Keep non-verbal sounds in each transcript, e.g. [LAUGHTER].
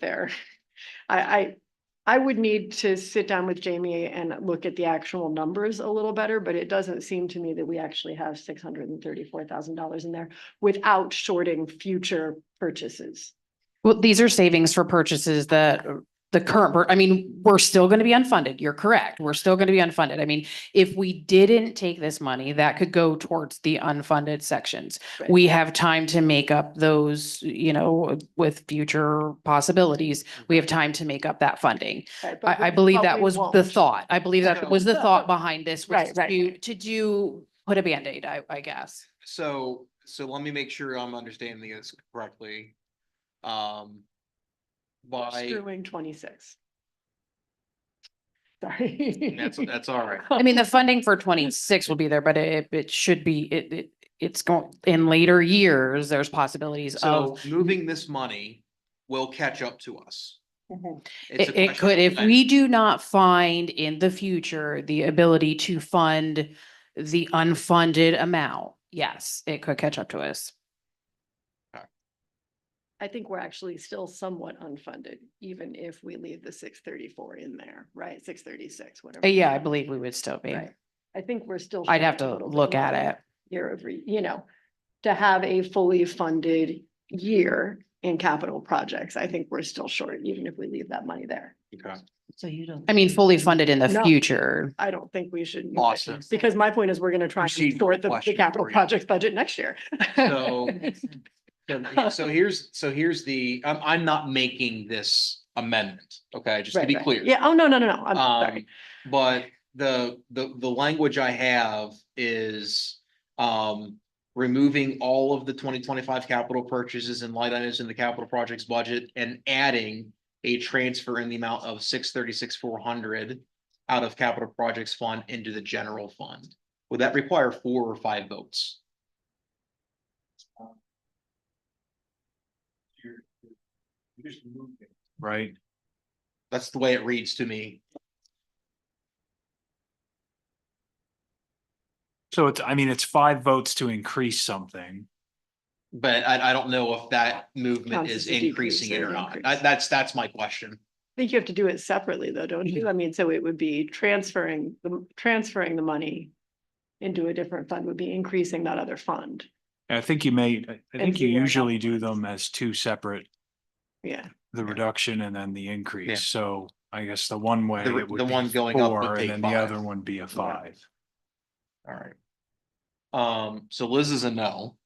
there. I, I, I would need to sit down with Jamie and look at the actual numbers a little better, but it doesn't seem to me that we actually have six hundred and thirty-four thousand dollars in there without shorting future purchases. Well, these are savings for purchases that uh, the current, per- I mean, we're still going to be unfunded. You're correct. We're still going to be unfunded. I mean, if we didn't take this money, that could go towards the unfunded sections. Right. We have time to make up those, you know, with future possibilities. We have time to make up that funding. right? But I, I we- believe but that we was the won't. thought. I believe No. that was the [LAUGHS] thought behind this was Right, right. to, to do, put a Band-Aid, I, I guess. So, so let me make sure I'm understanding this correctly. Um. By, Screwing [LAUGHS] twenty-six. Sorry. that's, that's [LAUGHS] [LAUGHS] all right. I mean, the funding for twenty-six will be there, but it, it should be, it, it, it's going, in later years, there's possibilities So of. moving this money will catch up to us. Mhm. It's It, a it question could, of if when. we do not find in the future the ability to fund the unfunded amount, yes, it could catch up to us. I think we're actually still somewhat unfunded, even if we leave the six thirty-four in there, right? Six thirty-six, whatever. Uh, Yeah, I believe we would still be. Right. I think we're still. I'd short have a to little bit look at more it. Year over, you know, to have a fully funded year in capital projects, I think we're still short, even if we leave that money there. Okay. So you don't. I mean, fully funded in the No. future. I don't think we should. Awesome. Because my point is, we're gonna try and Proceed sort the- the question capital for you. projects budget next year. [LAUGHS] So, Makes sense. so- so here's, so here's the, I'm, I'm not making this amendment, okay, just to Right, be right. clear. Yeah, oh, no, no, no, no, I'm Um, sorry. but the, the, the language I have is, um, removing all of the twenty twenty-five capital purchases and light items in the capital projects budget and adding a transfer in the amount of six thirty-six, four hundred out of capital projects fund into the general fund. Would that require four or five votes? Right, That's the way it reads to me. so it's, I mean, it's five votes to increase something. But I, I don't know if that movement Counts is as a decrease increasing it or or not. increase. I- That's, that's my question. I think you have to do it separately though, don't Mhm. you? I mean, so it would be transferring, the transferring the money into a different fund would be increasing that other fund. And I think you may, I- I think you zero usually do outwards. them as two separate, Yeah, the reduction and then the Yeah. increase, so I guess the one way. The- it would the be one going up would four, take And then the five. other one be a five. All right. Um, so Liz is a no.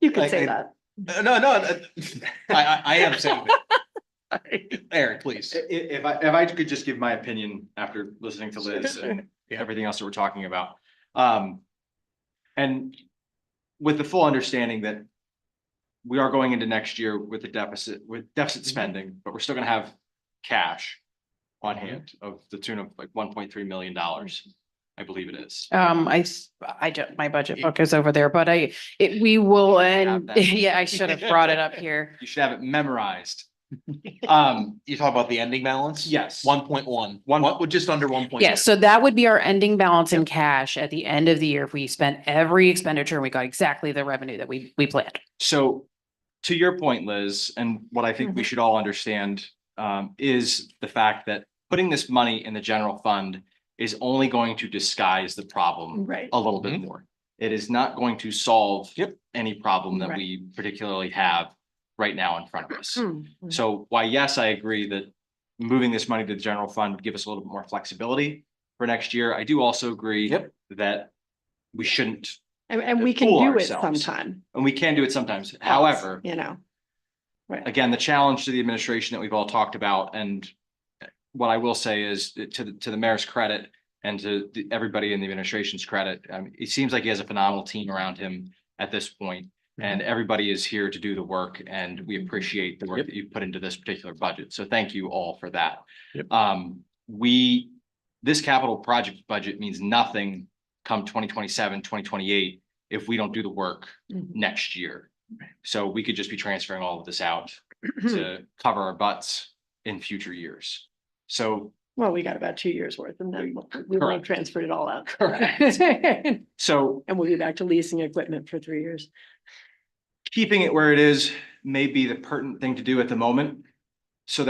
you could Like, say I- that. Uh, No, no, [LAUGHS] uh, I, I, I am saying that. Eric, please. I- i- if I, if I could just give my opinion after listening to Liz and Yeah. everything else that we're talking about. Um, and with the full understanding that we are going into next year with the deficit, with deficit spending, but we're still gonna have cash on hand of the tune of like one point three million dollars, I believe it is. Um, I, s- I don't, my budget book is over there, but I, it, we will, and, that. [LAUGHS] yeah, I should have brought it up here. You should have it memorized. Um, You talk about the ending balance? yes. One point one. One- What, well, just under one point. Yeah, so that would be our ending balance in cash at the end of the year if we spent every expenditure and we got exactly the revenue that we, we planned. So to your point, Liz, and what I Mm-hmm. think we should all understand um is the fact that putting this money in the general fund is only going to disguise the problem Right. a little bit Mhm. more. It is not going to solve Yep. any problem that Right. we particularly have right now in front of us. Mm-hmm. Hmm. So why, yes, I agree that moving this money to the general fund would give us a little bit more flexibility for next year. I do also agree Yep. that we shouldn't, And, and we can fool do it ourselves. sometime. and we can do it sometimes. else, However, You know, again, the challenge to the administration that we've all talked about and what I will say is that to the, to the mayor's credit and to the- everybody in the administration's credit, um, it seems like he has a phenomenal team around him at this point, And everybody is here to do the work and we appreciate the work Yep. that you've put into this particular budget. So thank you all for that. Yep. Um, we, this capital project budget means nothing come 2027, 2028 if we don't do the work Mhm. next year. So we could just be transferring all of this out [CLEARS THROAT] Hmm. to cover our butts in future years. So, [CLEARS THROAT] well, we got about two years worth and then we'll- we will have Correct. transferred it all out. Correct. [LAUGHS] And so we'll be back to leasing equipment for three years. keeping it where it is may be the pertinent thing to do at the moment.